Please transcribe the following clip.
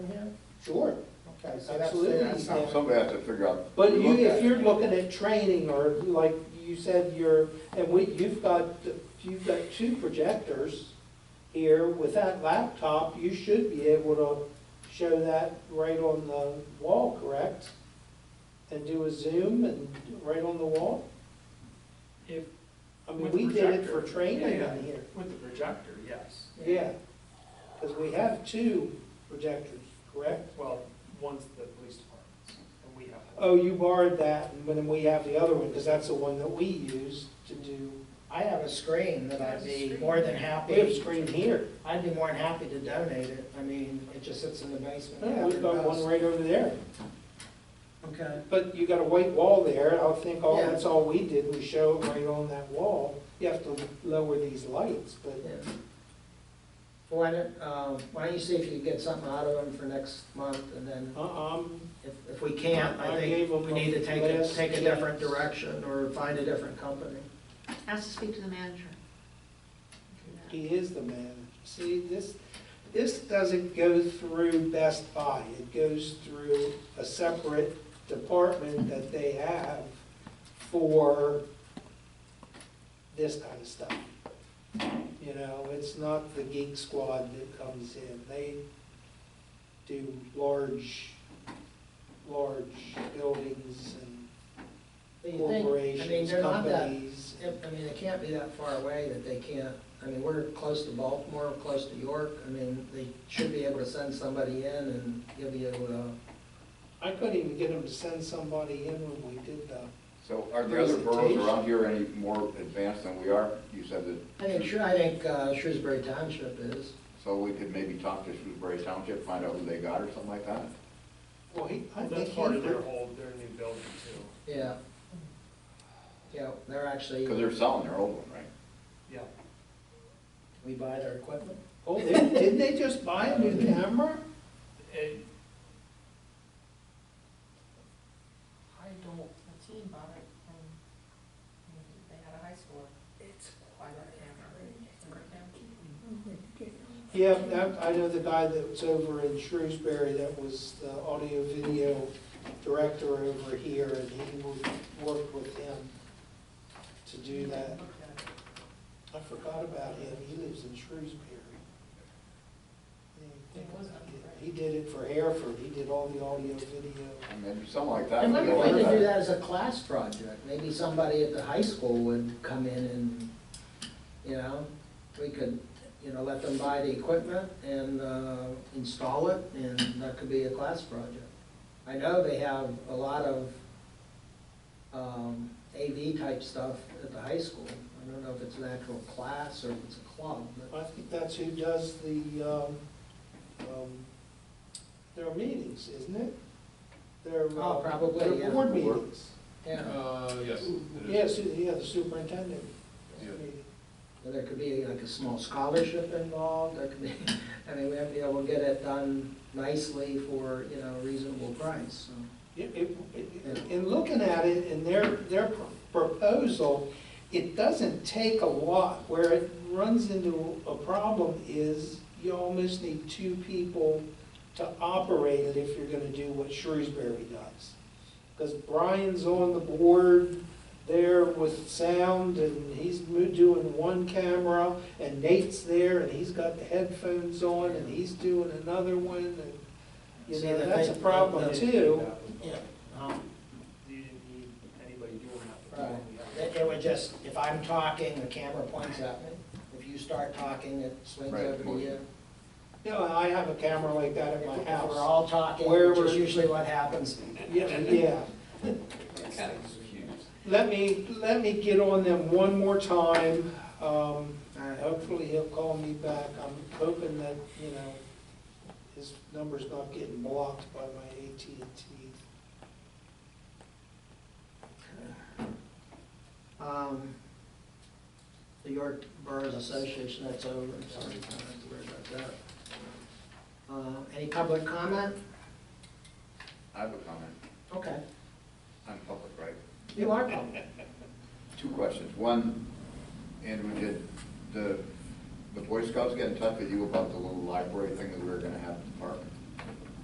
Sure, Okay, so that's, Absolutely. that's not. Somebody has to figure out. but you, look at if it. you're looking at training, or like you said, you're, and we, you've got, you've got two projectors here, with that laptop, you should be able to show that right on the wall, correct? And do a zoom and right on the wall? If, I mean, With the we did it for projector. training Yeah. in here. with the projector, yes. Yeah, because we have two projectors, correct? Well, one's the police department's, and we have. Oh, you borrowed that, and then we have the other one, because that's the one that we use to do, I have a screen that I'd be more than happy. we have a screen here. I'd be more than happy to donate it. I mean, it just sits in the basement. Yeah, We've got one right over there, Okay. but you got a white wall there, I think all, Yeah. that's all we did, we show it right on that wall. You have to lower these lights, but, Yeah. Why don't, um, why don't you see if you can get something out of them for next month, and then uh-uh, I'm- if, if we can't, I I gave think 'em we need to take a a, last take a different chance. direction, or find a different company. Has to speak to the manager. he is the man. See, this, this doesn't go through Best Buy, it goes through a separate department that they have for this kind of stuff. You know, it's not the geek squad that comes in, they do large, large buildings and But you think- I mean, corporations, they're not that, companies. I mean, it can't be that far away that they can't, I mean, we're close to Baltimore, close to York. I mean, they should be able to send somebody in and you'll be able to. I couldn't even get them to send somebody in when we did the So are the other boroughs around here any more advanced than we are? You said I think, that, sure, I think uh, Shrewsbury Township is. so we could maybe talk to Shrewsbury Township, find out who they got or something like that? Well, he, I think That's he part of their would- whole, their new building too. Yeah. Yeah, they're actually, Because they're selling their old one, right? Yeah, we buy their equipment. Oh, they- didn't they just buy a new camera? and. I don't, a team bought it from, they had a high school. It's. By that Yeah, that- I know the guy that was over in Shrewsbury that was the audio video director over here, and he would work with him to do that. I forgot about him, he lives in Shrewsbury. Yeah, I think about it. He did it for Hereford, he did all the audio video. I mean, something like that. And would maybe be a we lot could do better. that as a class project. Maybe somebody at the high school would come in and, you know, we could, you know, let them buy the equipment and uh, install it, and that could be a class project. I know they have a lot of um, AV type stuff at the high school. I don't know if it's an actual class or if it's a club, but I think that's who does the, um, um, their meetings, isn't it? Their, uh, Oh, probably, their yeah. board meetings. yeah, Uh, yes. it is. Yeah, su- yeah, the superintendent. Yeah. meeting. there could be like a small scholarship involved, there could be, I mean, we have to be able to get it done nicely for, you know, a reasonable price, so. It- it- it- In looking at it, in their, their pr- proposal, it doesn't take a lot. Where it runs into a problem is you almost need two people to operate it if you're gonna do what Shrewsbury does. Because Brian's on the board there with sound, and he's mo- doing one camera, and Nate's there, and he's got the headphones on, and he's doing another one, and, you See, know, the that's a thing- problem the- too. Yeah. Um, you didn't need anybody doing that. Right, It- it would just, if I'm talking, the camera points at me, if you start talking, it swings Right, over to motion. you. You know, I have a camera like that at If my we're house. all talking, Where which is we're- usually what happens, Yeah, yeah. Let me, let me get on them one more time. Um, Alright. Hopefully he'll call me back. I'm hoping that, you know, his number's not getting blocked by my AT&T. Um, The York Boroughs Association, that's over, sorry, I don't have to worry about that. Uh, Any public comment? I have a comment. Okay, I'm public, right? you are public. Two questions. One, Andrew, did the, the Boy Scouts get in touch with you about the little library thing that we were gonna have at the park?